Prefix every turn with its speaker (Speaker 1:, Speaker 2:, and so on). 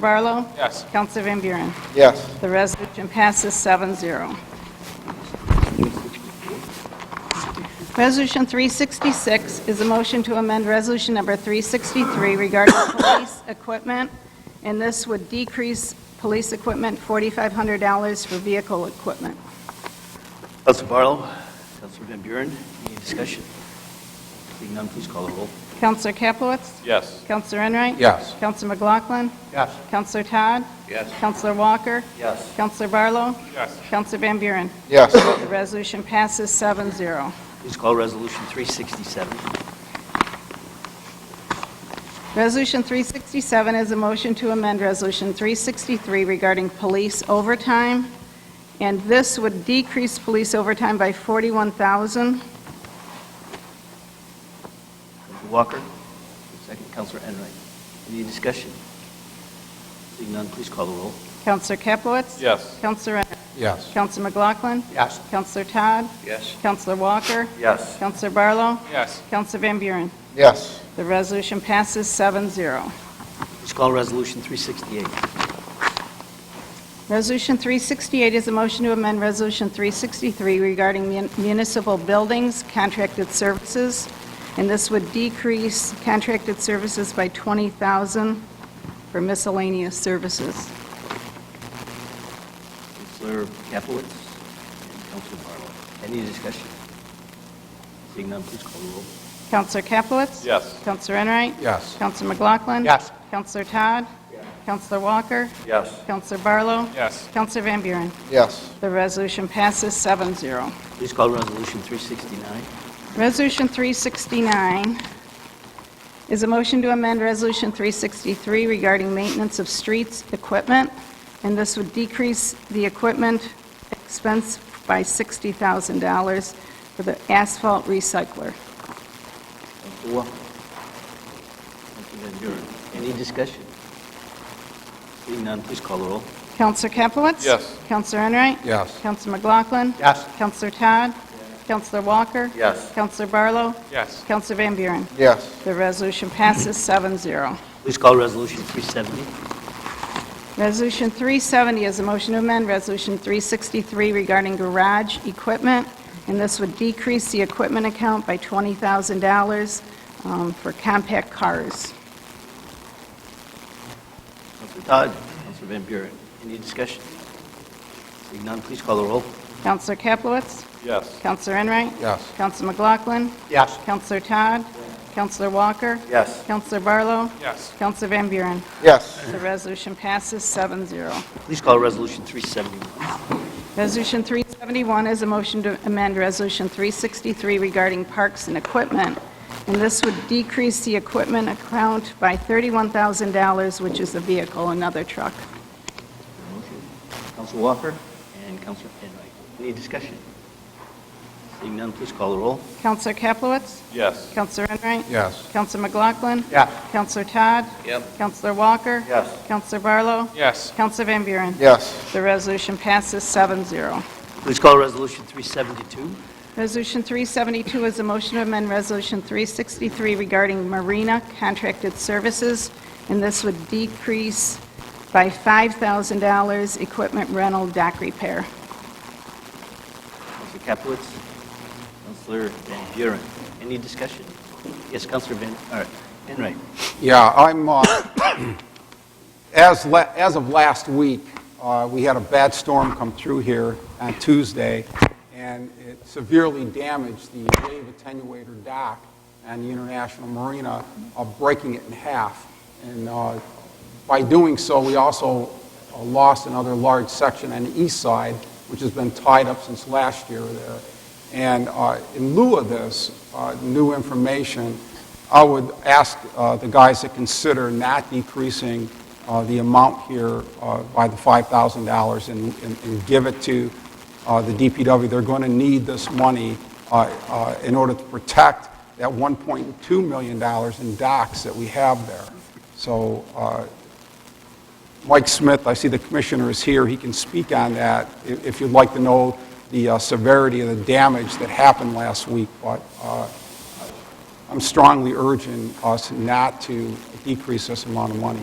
Speaker 1: Counselor Barlow?
Speaker 2: Yes.
Speaker 1: Counselor Van Buren?
Speaker 3: Yes.
Speaker 1: The resolution passes 7-0. Resolution 366 is a motion to amend Resolution Number 363 regarding police equipment, and this would decrease police equipment $4,500 for vehicle equipment.
Speaker 4: Counselor Barlow, Counselor Van Buren, any discussion? Seeing none, please call the roll.
Speaker 1: Counselor Capelitz?
Speaker 2: Yes.
Speaker 1: Counselor Enright?
Speaker 3: Yes.
Speaker 1: Counselor McLaughlin?
Speaker 3: Yes.
Speaker 1: Counselor Todd?
Speaker 4: Yes.
Speaker 1: Counselor Walker?
Speaker 4: Yes.
Speaker 1: Counselor Barlow?
Speaker 2: Yes.
Speaker 1: Counselor Van Buren?
Speaker 3: Yes.
Speaker 1: The resolution passes 7-0.
Speaker 4: Please call Resolution 367.
Speaker 1: Resolution 367 is a motion to amend Resolution 363 regarding police overtime, and this would decrease police overtime by 41,000.
Speaker 4: Counselor Walker, second Counselor Enright. Any discussion? Seeing none, please call the roll.
Speaker 1: Counselor Capelitz?
Speaker 2: Yes.
Speaker 1: Counselor Renner?
Speaker 3: Yes.
Speaker 1: Counselor McLaughlin?
Speaker 3: Yes.
Speaker 1: Counselor Todd?
Speaker 4: Yes.
Speaker 1: Counselor Walker?
Speaker 4: Yes.
Speaker 1: Counselor Barlow?
Speaker 2: Yes.
Speaker 1: Counselor Van Buren?
Speaker 3: Yes.
Speaker 1: The resolution passes 7-0.
Speaker 4: Please call Resolution 368.
Speaker 1: Resolution 368 is a motion to amend Resolution 363 regarding mun- municipal buildings contracted services, and this would decrease contracted services by 20,000 for miscellaneous services.
Speaker 4: Counselor Capelitz and Counselor Barlow. Any discussion? Seeing none, please call the roll.
Speaker 1: Counselor Capelitz?
Speaker 2: Yes.
Speaker 1: Counselor Enright?
Speaker 3: Yes.
Speaker 1: Counselor McLaughlin?
Speaker 3: Yes.
Speaker 1: Counselor Todd? Yes. Counselor Walker?
Speaker 4: Yes.
Speaker 1: Counselor Barlow?
Speaker 2: Yes.
Speaker 1: Counselor Van Buren?
Speaker 3: Yes.
Speaker 1: The resolution passes 7-0.
Speaker 4: Please call Resolution 369.
Speaker 1: Resolution 369 is a motion to amend Resolution 363 regarding maintenance of streets equipment, and this would decrease the equipment expense by $60,000 for the asphalt recycler.
Speaker 4: Counselor Walker. Counselor Van Buren. Any discussion? Seeing none, please call the roll.
Speaker 1: Counselor Capelitz?
Speaker 2: Yes.
Speaker 1: Counselor Enright?
Speaker 3: Yes.
Speaker 1: Counselor McLaughlin?
Speaker 3: Yes.
Speaker 1: Counselor Todd? Counselor Walker?
Speaker 4: Yes.
Speaker 1: Counselor Barlow?
Speaker 2: Yes.
Speaker 1: Counselor Van Buren?
Speaker 3: Yes.
Speaker 1: The resolution passes 7-0.
Speaker 4: Please call Resolution 370.
Speaker 1: Resolution 370 is a motion to amend Resolution 363 regarding garage equipment, and this would decrease the equipment account by $20,000 um, for compact cars.
Speaker 4: Counselor Todd, Counselor Van Buren. Any discussion? Seeing none, please call the roll.
Speaker 1: Counselor Kaplowitz?
Speaker 2: Yes.
Speaker 1: Counselor Enright?
Speaker 3: Yes.
Speaker 1: Counselor McLaughlin?
Speaker 3: Yes.
Speaker 1: Counselor Todd? Counselor Walker?
Speaker 4: Yes.
Speaker 1: Counselor Barlow?
Speaker 2: Yes.
Speaker 1: Counselor Van Buren?
Speaker 3: Yes.
Speaker 1: The resolution passes 7-0.
Speaker 4: Please call Resolution 371.
Speaker 1: Resolution 371 is a motion to amend Resolution 363 regarding parks and equipment, and this would decrease the equipment account by $31,000, which is a vehicle, another truck.
Speaker 4: Motion. Counselor Walker and Counselor Enright. Any discussion? Seeing none, please call the roll.
Speaker 1: Counselor Kaplowitz?
Speaker 2: Yes.
Speaker 1: Counselor Enright?
Speaker 3: Yes.
Speaker 1: Counselor McLaughlin?
Speaker 3: Yes.
Speaker 1: Counselor Todd?
Speaker 4: Yep.
Speaker 1: Counselor Walker?
Speaker 4: Yes.
Speaker 1: Counselor Barlow?
Speaker 2: Yes.
Speaker 1: Counselor Van Buren?
Speaker 3: Yes.
Speaker 1: The resolution passes 7-0.
Speaker 4: Please call Resolution 372.
Speaker 1: Resolution 372 is a motion to amend Resolution 363 regarding marina contracted services, and this would decrease by $5,000 equipment rental dock repair.
Speaker 4: Counselor Capelitz, Counselor Van Buren. Any discussion? Yes, Counselor Van, all right, Enright.
Speaker 3: Yeah, I'm, uh, as, la- as of last week, uh, we had a bad storm come through here on Tuesday, and it severely damaged the wave attenuator dock and the International Marina, uh, breaking it in half. And uh, by doing so, we also uh, lost another large section on the east side, which has been tied up since last year there. And uh, in lieu of this uh, new information, I would ask uh, the guys to consider not decreasing uh, the amount here uh, by the $5,000 and- and and give it to uh, the DPW. They're going to need this money uh, uh, in order to protect that $1.2 million in docks that we have there. So uh, Mike Smith, I see the commissioner is here, he can speak on that i- if you'd like to know the uh, severity of the damage that happened last week, but uh, I'm strongly urging us not to decrease this amount of money.